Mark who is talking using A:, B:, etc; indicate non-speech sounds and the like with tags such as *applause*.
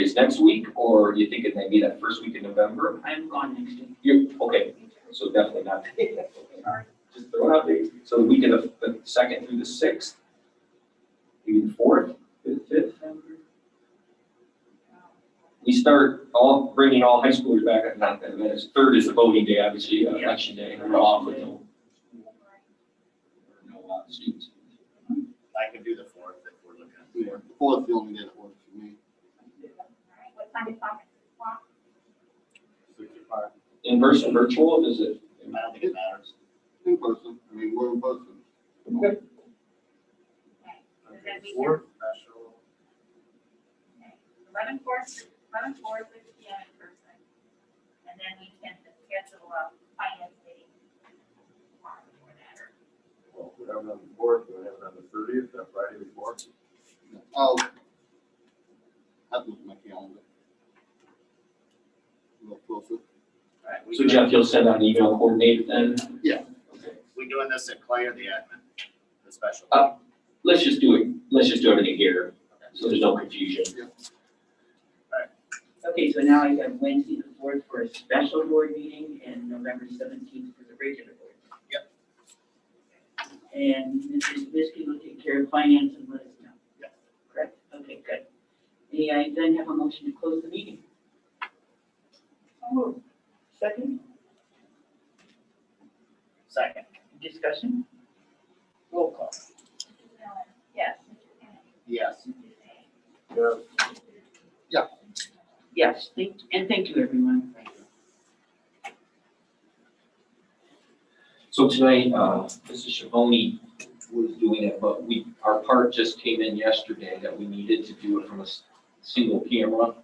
A: is next week, or you think it may be that first week in November?
B: I'm gone next week.
A: You, okay, so definitely
B: *laughs*
A: not. Just throw it out there. So the week of the the second through the sixth, maybe the fourth, fifth, fifth. We start all, bringing all high schoolers back, not that, that is, third is the voting day, obviously, uh,
B: Yeah.
A: election day, we're off with no. No, uh, students.
C: I can do the fourth if we're looking at. the
D: Fourth,
C: fourth.
D: the only day that works for me.
E: What time is that?
A: In person, virtual, is it?
C: I don't think it matters.
D: In person, I mean, we're in person.
A: Okay.
E: Does that mean-
C: Fourth, special.
E: Eleven four, eleven four, six P M in person. And then we can schedule a finance meeting. tomorrow before that, or-
F: Well, we have it on the fourth, we have it on the thirtieth, that Friday before.
D: I'll have to look at my calendar. A little closer.
C: All right, we
A: So
C: doing-
A: Jeff, you'll send out an email coordinated then?
D: Yeah.
A: Okay.
C: We doing this at Clay or the admin? The special?
A: Uh, Let's just do it, let's just do everything here, so there's no confusion.
B: Okay, so now I have Wednesday the fourth for a special board meeting and November seventeenth for the regular board. Yep. And Mrs. Biskie will take care of finance and let us know.
C: Yep.
B: Correct, okay, good. May I then have a motion to close the meeting? Second,
C: Second.
B: discussion? Roll call.
E: Mrs. Miller? Yes. Mr. Kennedy?
C: Yes.
E: Mrs. Day?
F: Yeah,
B: Yes, thank, and thank you, everyone.
A: So tonight, uh, Mrs. Shavoni was doing it, but we, our part just came in yesterday that we needed to do it from a s- single camera.